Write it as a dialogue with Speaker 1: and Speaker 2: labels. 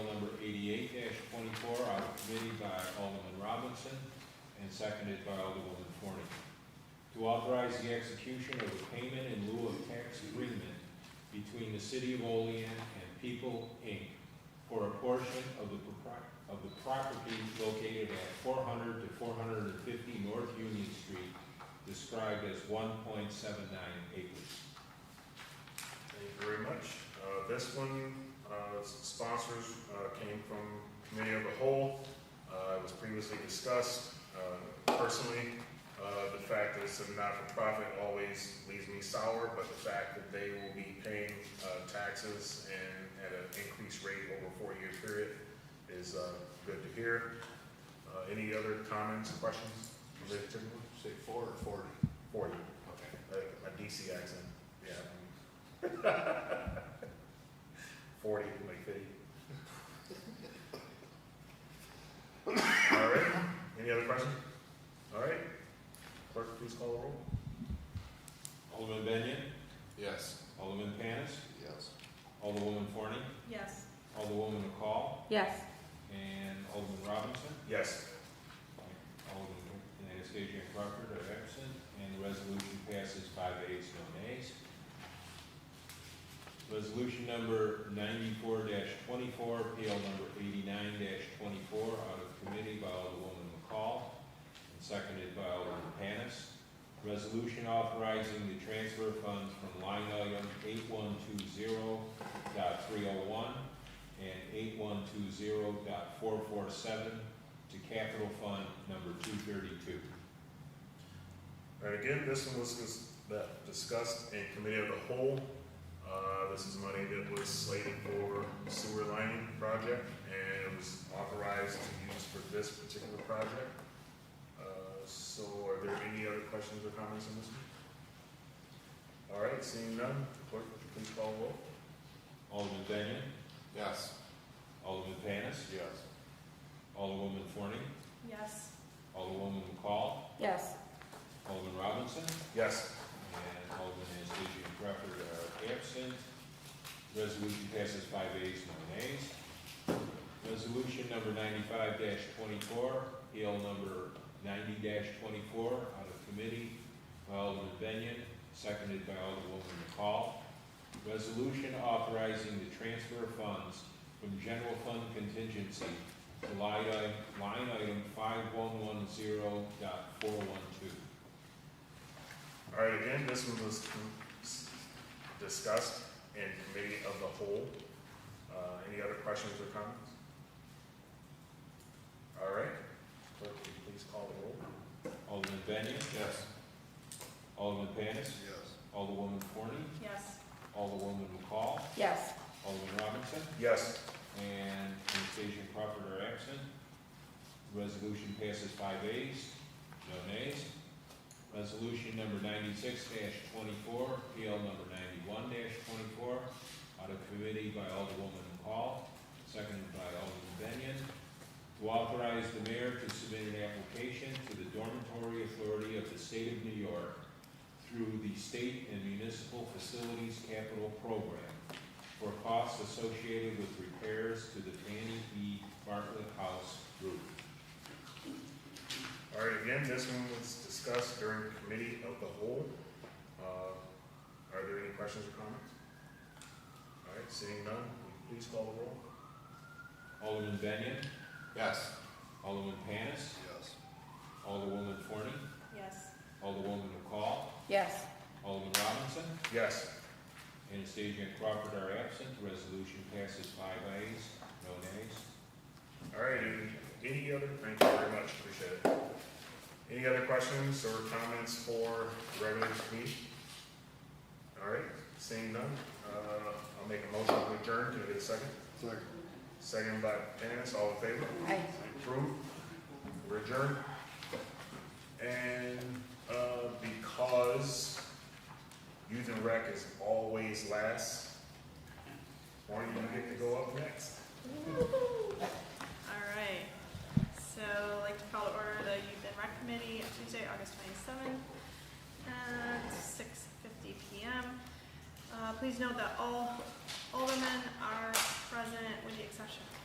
Speaker 1: Committee by Alderman Robinson and seconded by Alderwoman Forney. To authorize the execution of a payment in lieu of tax agreement between the City of Olean and People, Inc. for a portion of the propri- of the property located at four hundred to four hundred and fifty North Union Street, described as one point seven nine acres.
Speaker 2: Thank you very much. Uh, This one, uh, s- sponsors uh, came from Committee of the Whole. Uh, It was previously discussed. Uh, Personally, uh, the fact that it's a not-for-profit always leaves me sour, but the fact that they will be paying uh, taxes and at an increased rate over a four-year period is uh, good to hear. Uh, Any other comments, questions? related to it?
Speaker 3: Say four or forty?
Speaker 2: Forty,
Speaker 3: Okay.
Speaker 2: a a DC accent, yeah. Forty, like fifty. All right, any other questions? All right, clerk, please call the roll.
Speaker 1: Alderman Benyon?
Speaker 3: Yes.
Speaker 1: Alderman Panis?
Speaker 3: Yes.
Speaker 1: Alderwoman Forney?
Speaker 4: Yes.
Speaker 1: Alderwoman McCall?
Speaker 4: Yes.
Speaker 1: And Alderman Robinson?
Speaker 2: Yes,
Speaker 1: Alderman Anastasia and Crawford are absent, and the resolution passes five ayes, no nays. Resolution number ninety-four twenty-four, PL number eighty-nine twenty-four, out of committee by Alderwoman McCall, and seconded by Alderman Panis. Resolution authorizing the transfer of funds from line item eight one two zero dot three oh one and eight one two zero dot four four seven to capital fund number two thirty-two.
Speaker 2: and again, this one was dis- that discussed in committee of the whole. Uh, this is money that was slated for sewer lining project, and it was authorized to use for this particular project. Uh, So are there any other questions or comments on this one? All right, seeing none, clerk, please call the roll.
Speaker 1: Alderman Benyon,
Speaker 3: Yes.
Speaker 1: Alderman Panis,
Speaker 3: Yes.
Speaker 1: Alderwoman Forney,
Speaker 4: Yes.
Speaker 1: Alderwoman McCall,
Speaker 4: Yes.
Speaker 1: Alderman Robinson,
Speaker 2: Yes,
Speaker 1: and Alderman Anastasia and Crawford are absent. Resolution passes five ayes, no nays. Resolution number ninety-five twenty-four, PL number ninety twenty-four, out of committee by Alderman Benyon, seconded by Alderwoman McCall. Resolution authorizing the transfer of funds from general fund contingency to line item, line item five one one zero dot four one two.
Speaker 2: all right, again, this one was discussed in committee of the whole. Uh, Any other questions or comments? All right, clerk, will you please call the roll.
Speaker 1: Alderman Benyon?
Speaker 3: Yes.
Speaker 1: Alderman Panis?
Speaker 3: Yes.
Speaker 1: Alderwoman Forney?
Speaker 4: Yes.
Speaker 1: Alderwoman McCall?
Speaker 4: Yes.
Speaker 1: Alderman Robinson?
Speaker 2: Yes,
Speaker 1: And Anastasia and Crawford are absent. Resolution passes five ayes, no nays. Resolution number ninety-six twenty-four, PL number ninety-one twenty-four, out of committee by Alderwoman McCall, seconded by Alderman Benyon, to authorize the mayor to submit an application to the dormitory authority of the state of New York through the State and Municipal Facilities Capital Program for costs associated with repairs to the Danny E. Bartlett House roof.
Speaker 2: all right, again, this one was discussed during committee of the whole. Uh, Are there any questions or comments? All right, seeing none, will you please call the roll.
Speaker 1: Alderman Benyon,
Speaker 3: Yes.
Speaker 1: Alderman Panis,
Speaker 3: Yes.
Speaker 1: Alderwoman Forney,
Speaker 4: Yes.
Speaker 1: Alderwoman McCall,
Speaker 4: Yes.
Speaker 1: Alderman Robinson,
Speaker 2: Yes,
Speaker 1: Anastasia and Crawford are absent. The Resolution passes five ayes, no nays.
Speaker 2: All right, any other, thank you very much, appreciate it. Any other questions or comments for regular meeting? All right, seeing none, uh, I'll make a motion to adjourn, can I get a second?
Speaker 3: Second.
Speaker 2: Second by Dennis, all in favor?
Speaker 4: Aye.
Speaker 2: Approved, we're adjourned. And, uh, because youth and rec is always last, Warren, you get to go up next.
Speaker 4: All right. So, I'd like to call to order the Youth and Rec Committee on Tuesday, August 27th at 6:50 PM. Uh, Please note that all aldermen are present with the exception